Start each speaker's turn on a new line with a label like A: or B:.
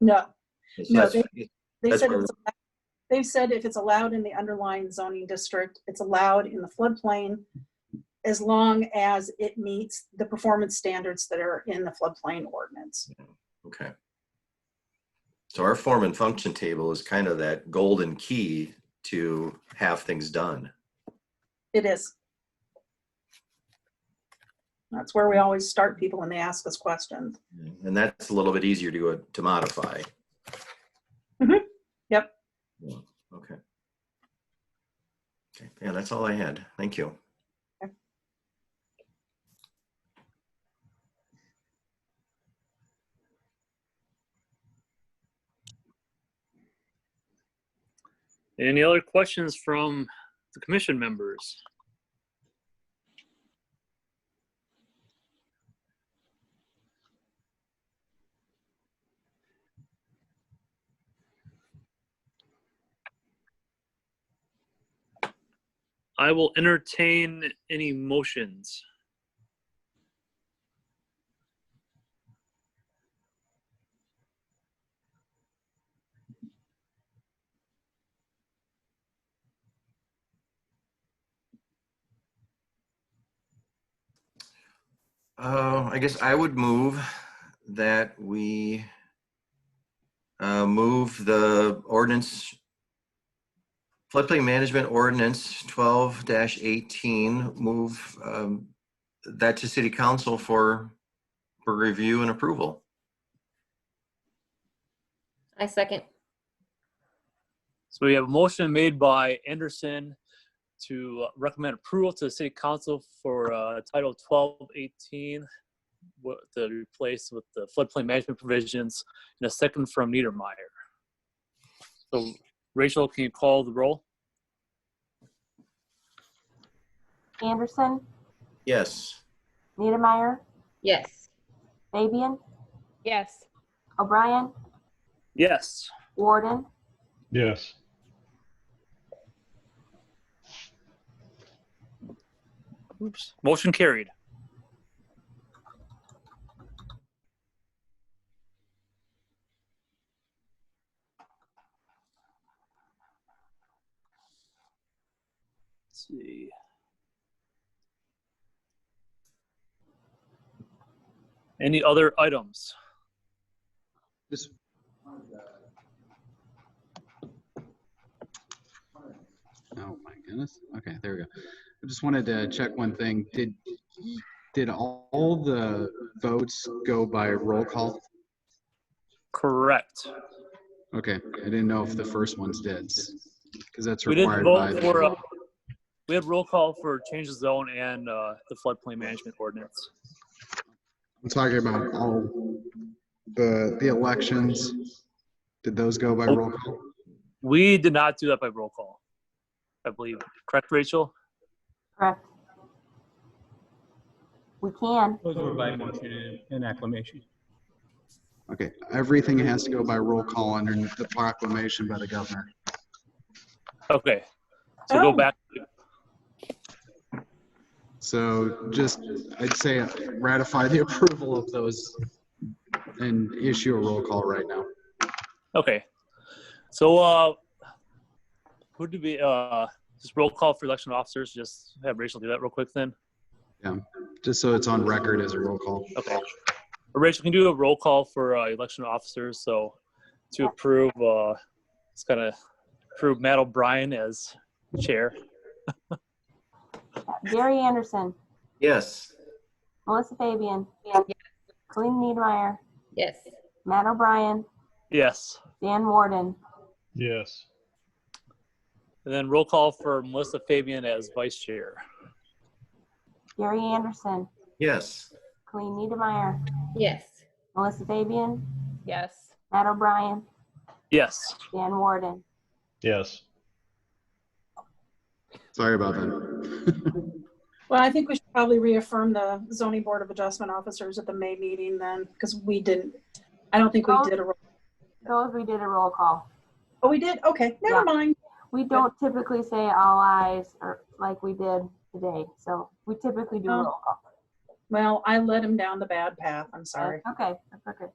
A: No,
B: So
A: No,
B: that's-
A: they
B: That's
A: said,
B: where
A: it's allowed- they said if it's allowed in the underlying zoning district, it's allowed in the floodplain as long as it meets the performance standards that are in the floodplain ordinance.
B: Okay. So our form and function table is kind of that golden key to have things done.
A: It is. That's where we always start people when they ask us questions.
B: And that's a little bit easier to go to modify.
A: Mhm. Yep.
B: Yeah, Okay. Okay. Yeah, that's all I had. Thank you.
C: Any other questions from the commission members? I will entertain any motions.
B: Uh, I guess I would move that we uh, move the ordinance, floodplain management ordinance twelve eighteen, move um, that to city council for, for review and approval.
D: I second.
C: So we have a motion made by Anderson to recommend approval to the city council for uh, Title 1218 wa- to replace with the floodplain management provisions, and a second from Niedermeyer. So Rachel, can you call the roll?
E: Anderson,
B: Yes.
E: Niedermeyer,
D: Yes.
E: Fabian,
F: Yes.
E: O'Brien,
C: Yes.
E: Warden,
G: Yes,
C: Oops. Motion carried. Let's see. Any other items?
H: Just. Oh my goodness. Okay, there we go. I just wanted to check one thing. Did, did all the votes go by roll call?
C: Correct.
H: Okay, I didn't know if the first ones did, because that's
C: We didn't
H: required by.
C: vote for, uh, we had roll call for change of zone and uh, the floodplain management ordinance.
H: I'm talking about all the, the elections. Did those go
C: Oh.
H: by roll call?
C: We did not do that by roll call, I believe. Correct, Rachel?
E: correct. We can,
I: Those were by motion and acclamation.
H: Okay, everything has to go by roll call under the proclamation by the governor.
C: Okay. So go
A: Oh.
C: back.
H: So just, I'd say ratify the approval of those and issue a roll call right now.
C: Okay. So uh who do we uh just roll call for election officers? Just have Rachel do that real quick then.
H: Just so it's on record as a roll call.
C: Okay. Rachel can you do a roll call for uh, election officers. So to approve uh it's gonna approve Matt O'Brien as chair.
E: Gary Anderson,
B: Yes.
E: Melissa Fabian,
D: Yes.
E: Colleen Niedermeyer,
D: Yes.
E: Matt O'Brien,
C: Yes.
E: Dan Warden,
G: yes,
C: And then roll call for Melissa Fabian as vice chair.
E: Gary Anderson,
B: Yes.
E: Colleen Niedermeyer,
D: Yes.
E: Melissa Fabian,
F: Yes.
E: Matt O'Brien,
C: Yes.
E: Dan Warden,
G: yes,
H: Sorry about that.
A: Well, I think we should probably reaffirm the zoning board of adjustment officers at the May meeting then, because we didn't, I don't think we did a,
E: those we did a roll call.
A: oh, we did? Okay, never
E: Yeah.
A: mind.
E: We don't typically say all eyes or like we did today, so we typically do a
A: Oh.
E: roll call.
A: Well, I led him down the bad path. I'm sorry.
E: Okay, that's okay.